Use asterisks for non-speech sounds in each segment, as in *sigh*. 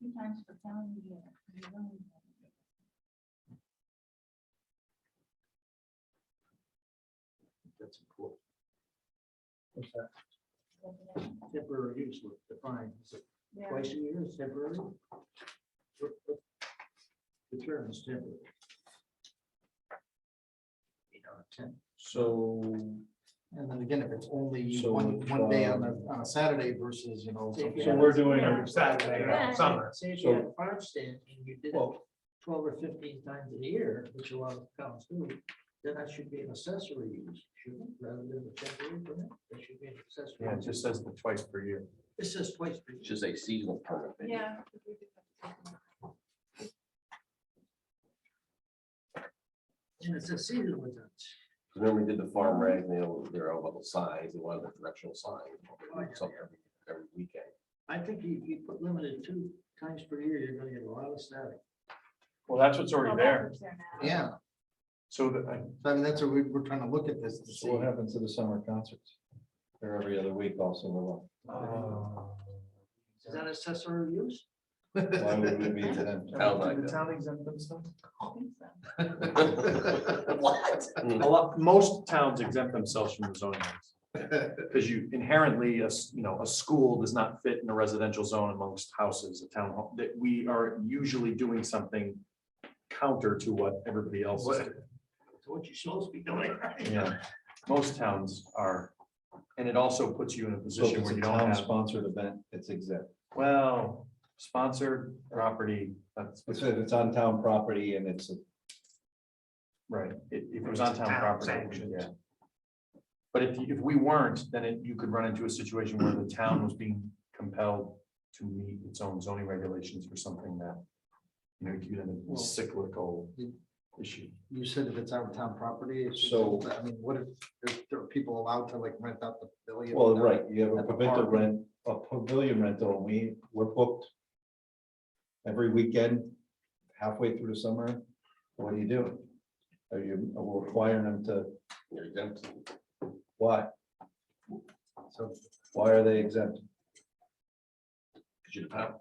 Two times per calendar year. That's important. What's that? Temporary use was defined, is it Yeah. twice a year, is temporary? What- what- The term is temporary. You know, temp, So, And then again, if it's only So one, it's, one day on um, a, on a Saturday versus, you know. something- so we're doing, uh, Yeah. a- Saturday, Yeah. summer. Say if you So- had a farm stand and you did it well, twelve or fifteen times a year, which a lot of towns do, then that should be an accessory use, shouldn't it, rather than a temporary permit, that should be an yeah, accessory. it just says the twice per year. It says twice per year. just a seasonal permit. maybe. Yeah. And it's a seasonal event. Remember we did the farm rag, they were, they were all about the signs, they wanted a directional sign, something every, every weekend. I think if you put limited two times per year, you're gonna get a lot of static. Well, that's what's already there. Yeah, So that, I- so I mean, that's what we, we're trying to look at this to So see. what happens to the summer concerts? They're every other week also. *laughs* we're Is that accessory use? like, Why would we be to them? Sounds like that. town exempt themselves? *laughs* What? A lot, most towns exempt themselves from the zoning. *laughs* Because you inherently, a s- you know, a school does not fit in a residential zone amongst houses, a town hall, that we are usually doing something counter to what everybody else is. doing. It's what you're supposed to be doing. Yeah. Most towns are, and it also puts you in a So if position it's where a you don't town have, sponsored event, it's exempt. well, sponsored property, that's, It's if it's on town property and it's, right, if, if it was on town property. we should- sanctioned. But if, if we weren't, then it, you could run into a situation where the town was being compelled to meet its own zoning regulations for something that. You know, you Well- a cyclical issue. You said if it's on town property. it's- So- I mean, what if, if there are people allowed to like rent out the pavilion? well, right, you have a At the pavilion park. rent, a pavilion rental, and we, we're booked. Every weekend, halfway through the summer, what do you do? Are you requiring them to, You're exempt. why? So Why are they exempt? Cause you're the town.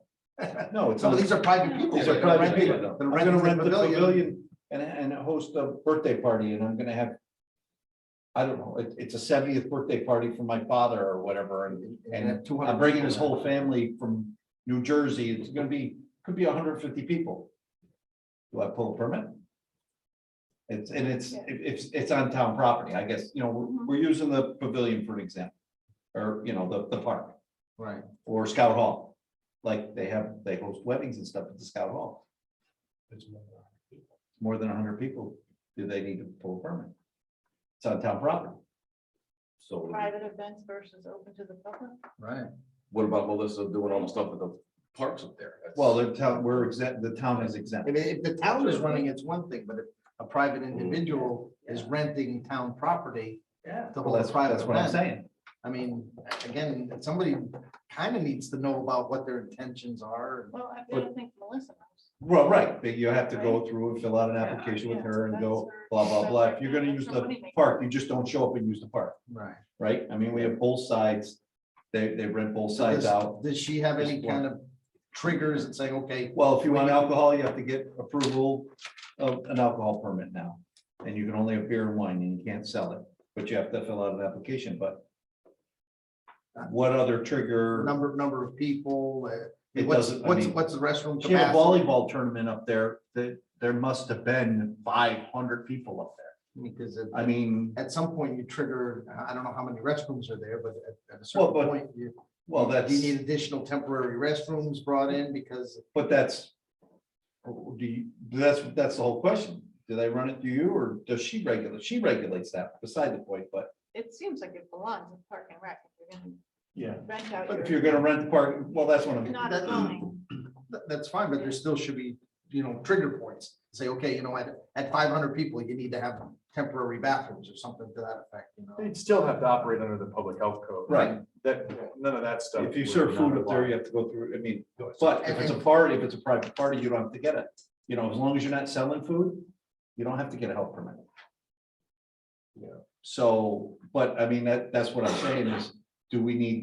*laughs* No, it's some not. of these are private people. These are they're gonna private rent it, people. they're I'm gonna renting rent the pavilion and, and host a birthday party and I'm gonna have. I don't know, it, it's a seventieth birthday party for my father or whatever, and, and two I'm bringing his whole family from New Jersey, it's gonna be, could be hundred fifty people. Do I pull a permit? It's, and it's, Yeah. if, if it's on town property, I guess, you know, Mhm. we're, we're using the pavilion for an example. Or, you know, the, the park Right, or Scout Hall, like they have, they host weddings and stuff at the Scout Hall more than hundred people, do they need to pull a permit? It's on town property. So Private events versus open to the public. right. what about Melissa doing all the stuff at the parks up there? That's- Well, the town, we're exempt, the town is I exempt. mean, if the town is running, it's one thing, but if a private individual is renting town property Yeah. to Well, hold a that's, private that's what I'm event, saying. I mean, again, somebody kind of needs to know about what their intentions are. Well, I don't think Melissa knows. Well, right, but you have to go through and fill out an application with her and go blah, blah, blah. If you're gonna use the park, you just don't show up and use the park, Right. right? I mean, we have both sides. They, they rent both sides out. Does she have any Just one. kind of triggers and saying, okay, Well, if you want alcohol, you have to get approval of an alcohol permit now. And you can only have beer and wine and you can't sell it, but you have to fill out an application, but. What other trigger? number, number of people, uh, It what's, doesn't, I what's, mean, what's the restroom she had a capacity? volleyball tournament up there, that there must have been five hundred people up there. Because it- I mean, at some point you trigger, I- I don't know how many restrooms are there, but at, at a Well, certain but- point, you. well, that's, Do you need additional temporary restrooms brought in because but that's. Do you, that's, that's the whole question. Do they run it through you or does she regulate? She regulates that beside the point, but. It seems like it belongs in park and rec. If you're gonna Yeah. rent out But if your- you're gonna rent the park, well, that's one of. Not a zoning. That, that's fine, but there still should be, you know, trigger points. Say, okay, you know, at, at five hundred people, you need to have temporary bathrooms or something to that effect, you know? They'd still have to operate under the public health code. Right, That, none of that stuff. if you would serve not food up there, apply. you have to go through, I mean, but if it's a party, if it's a private party, you don't have to get it. You know, as long as you're not selling food, you don't have to get a health permit. Yeah. So, but I mean, that, that's what I'm saying is, do we need